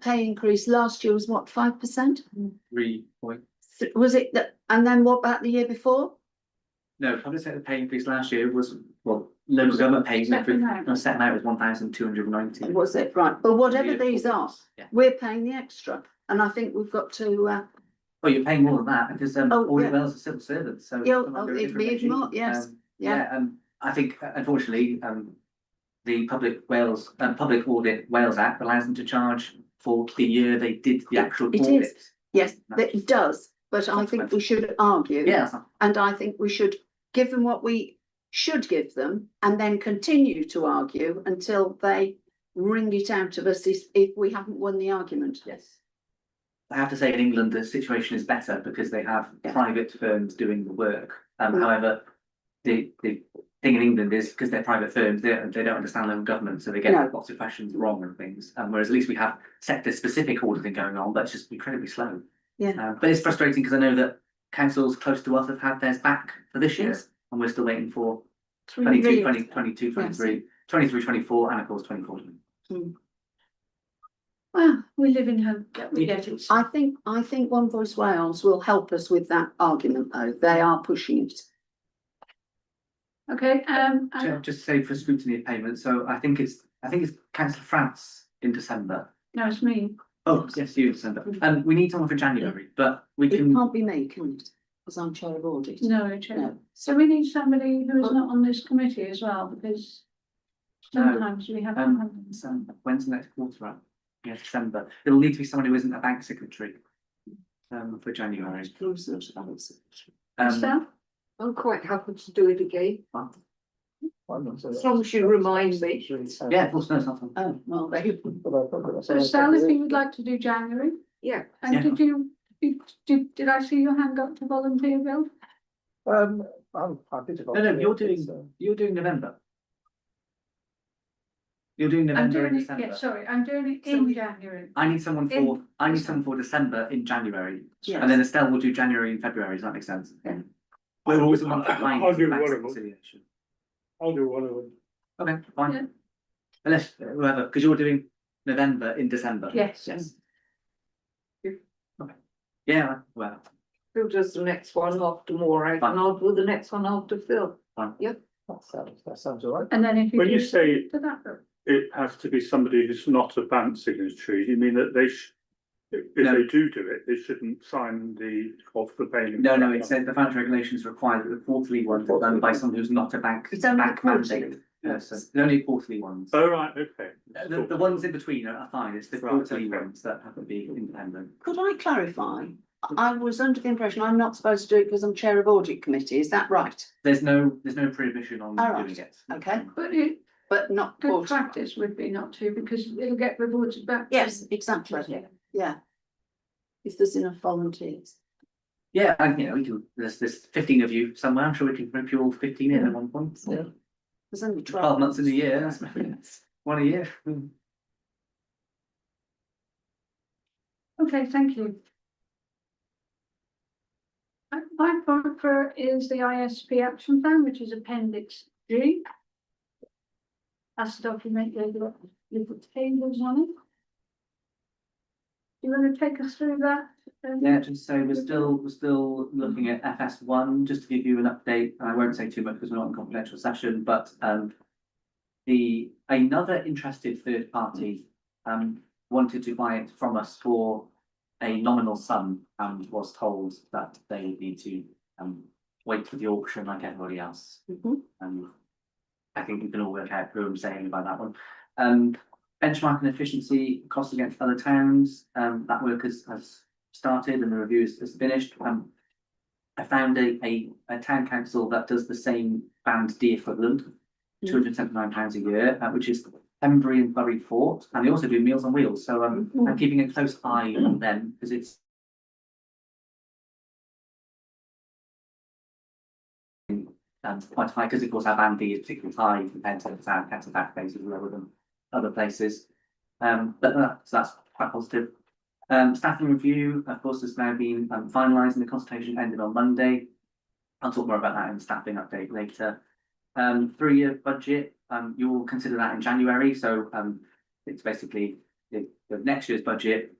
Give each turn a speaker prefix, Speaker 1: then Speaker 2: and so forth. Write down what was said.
Speaker 1: pay increase last year was what, five percent?
Speaker 2: three point,
Speaker 1: Was it that, and then what about the year before?
Speaker 2: no, public sector pay increase last year was, well, local government pays
Speaker 1: Set
Speaker 2: increase,
Speaker 1: amount.
Speaker 2: no, set amount was one thousand two hundred ninety.
Speaker 1: Was it, right, but whatever these are,
Speaker 2: Yeah,
Speaker 1: we're paying the extra, and I think we've got to, uh,
Speaker 2: well, Oh, you're paying more than that because um
Speaker 1: Oh,
Speaker 2: all
Speaker 1: yeah.
Speaker 2: your wells are civil servants, so.
Speaker 1: Yeah,
Speaker 2: come
Speaker 1: oh,
Speaker 2: under a
Speaker 1: it'd
Speaker 2: different
Speaker 1: be
Speaker 2: regime.
Speaker 1: more, yes,
Speaker 2: Um,
Speaker 1: yeah,
Speaker 2: Yeah, um, I think uh, unfortunately, um, the Public Wales, uh, Public Audit Wales Act allows them to charge for the year they did the actual
Speaker 1: It is.
Speaker 2: audit.
Speaker 1: yes, that it does, but I think we should argue.
Speaker 2: Yeah, that's-
Speaker 1: And I think we should give them what we should give them and then continue to argue until they wring it out of us if, if we haven't won the argument.
Speaker 2: Yes. I have to say, in England, the situation is better because they have
Speaker 1: Yeah.
Speaker 2: private firms doing the work. Um,
Speaker 1: Mm.
Speaker 2: however, the, the thing in England is because they're private firms, they, they don't understand their own government, so they
Speaker 1: No.
Speaker 2: get lots of questions wrong and things. Um, whereas at least we have sector specific auditing going on, but it's just incredibly slow.
Speaker 1: Yeah.
Speaker 2: Uh, but it's frustrating because I know that councils close to us have had theirs back for this year
Speaker 1: Yes.
Speaker 2: and we're still waiting for
Speaker 1: Three
Speaker 2: twenty-two,
Speaker 1: million.
Speaker 2: twenty, twenty-two, twenty-three, twenty-three, twenty-four, and of course twenty-four.
Speaker 1: Well,
Speaker 3: We live in hope, we
Speaker 2: Yeah.
Speaker 3: get it.
Speaker 1: I think, I think One Voice Wales will help us with that argument though. They are pushing it.
Speaker 3: Okay, um, and-
Speaker 2: Ju- Just say for scrutiny of payments, so I think it's, I think it's council France in December.
Speaker 3: no, it's me.
Speaker 2: Oh, yes, you in December, and we need someone for January, but we
Speaker 1: It
Speaker 2: can,
Speaker 1: can't be me, can it? Because I'm chair of audit.
Speaker 3: No, it's you.
Speaker 1: No.
Speaker 3: So we need somebody who is not on this committee as well, because
Speaker 2: No.
Speaker 3: sometimes we have.
Speaker 2: Um, December, when's the next quarter up? Yeah, December, it'll need to be someone who isn't a bank secretary. Um, for January, um,
Speaker 3: Staff?
Speaker 4: I'm quite happy to do it again, as long as you remind me.
Speaker 2: yeah, of course, no, it's not. on.
Speaker 1: Oh, well, they,
Speaker 3: So Sal, if you would like to do January,
Speaker 4: Yeah,
Speaker 3: and
Speaker 2: Yeah.
Speaker 3: did you, you- did, did I see your hand up to volunteer, Bill?
Speaker 5: Um, I'm happy to. uh,
Speaker 2: No, no, you're doing-
Speaker 5: so-
Speaker 2: You're doing November. You're doing
Speaker 3: I'm
Speaker 2: November
Speaker 3: doing
Speaker 2: and
Speaker 3: it, yeah,
Speaker 2: December,
Speaker 3: sorry, I'm doing it
Speaker 1: So we-
Speaker 3: in January.
Speaker 2: I need someone for,
Speaker 3: In-
Speaker 2: I need someone for December in January,
Speaker 1: yes.
Speaker 2: and then Estelle will do January and February, does that make sense?
Speaker 1: Yeah.
Speaker 2: We're always a month behind.
Speaker 5: I'll do one
Speaker 2: bank
Speaker 5: of them,
Speaker 2: reconciliation.
Speaker 5: I'll do one of them.
Speaker 2: Okay,
Speaker 3: Yeah.
Speaker 2: fine. Unless, uh, whoever, because you're doing November in December.
Speaker 3: Yes.
Speaker 2: Yes. Okay. Yeah, well,
Speaker 4: Phil does the next one after Maureen, and
Speaker 2: Fine.
Speaker 4: I'll do the next one after Phil.
Speaker 5: That sounds, that sounds all right.
Speaker 3: And then if you.
Speaker 6: When you
Speaker 3: do-
Speaker 6: say
Speaker 3: To that, Bill.
Speaker 6: it has to be somebody who's not a bank signatory, you mean that they sh if if
Speaker 2: No.
Speaker 6: they do do it, they shouldn't sign the of the payment.
Speaker 2: no, no, it says the financial regulations require that the quarterly ones are done by someone who's not a bank,
Speaker 1: It's only
Speaker 2: bank
Speaker 1: quarterly.
Speaker 2: mandate. Yes, so the only quarterly ones.
Speaker 6: Oh, right, okay.
Speaker 2: Uh, The, the ones in between are are fine, it's the
Speaker 6: Right,
Speaker 2: quarterly
Speaker 6: okay.
Speaker 2: ones that have to be independent.
Speaker 1: Could I clarify? I was under the impression I'm not supposed to do it because I'm chair of audit committee, is that right?
Speaker 2: There's no, there's no prohibition on
Speaker 1: All right,
Speaker 2: doing it.
Speaker 1: okay.
Speaker 3: But it,
Speaker 1: But not
Speaker 3: good
Speaker 1: quarterly.
Speaker 3: practice would be not to, because it'll get reported back. to
Speaker 1: Yes, exactly,
Speaker 3: Yeah.
Speaker 1: yeah. If there's enough volunteers.
Speaker 2: Yeah, and you know, we can, there's, there's fifteen of you somewhere, I'm sure we can rip you all fifteen in at one point.
Speaker 1: Yeah. There's only twelve.
Speaker 2: Twelve months in a year, that's one a year. Hmm.
Speaker 3: Okay, thank you. Uh, My point for is the ISP action plan, which is appendix G. As documented, with the tables on it. You want to take us through that? um,
Speaker 2: Yeah, just so we're still, we're still looking at FS one, just to give you an update, and I won't say too much because we're not in confidential session, but um. The, another interested third party um wanted to buy it from us for a nominal sum and was told that they would need to um wait for the auction like everybody else.
Speaker 1: Mhm.
Speaker 2: Um, I think we can all work out who I'm saying about that one. Um, benchmarking efficiency, costs against other towns, um, that work has, has started and the review is, is finished. Um, I found a, a, a town council that does the same band D equivalent, two hundred and seventy-nine pounds a year, uh, which is Pembury and Bury Fort, and they also do Meals on Wheels, so, um,
Speaker 1: Mm-hmm.
Speaker 2: I'm keeping a close eye on them, because it's um, quite high, because of course our band B is particularly high compared to our council tax bases lower than other places. Um, but that, so that's quite positive. Um, staffing review, of course, has now been um, finalised and the consultation ended on Monday. I'll talk more about that in the staffing update later. Um, three-year budget, um, you'll consider that in January, so, um, it's basically the, the next year's budget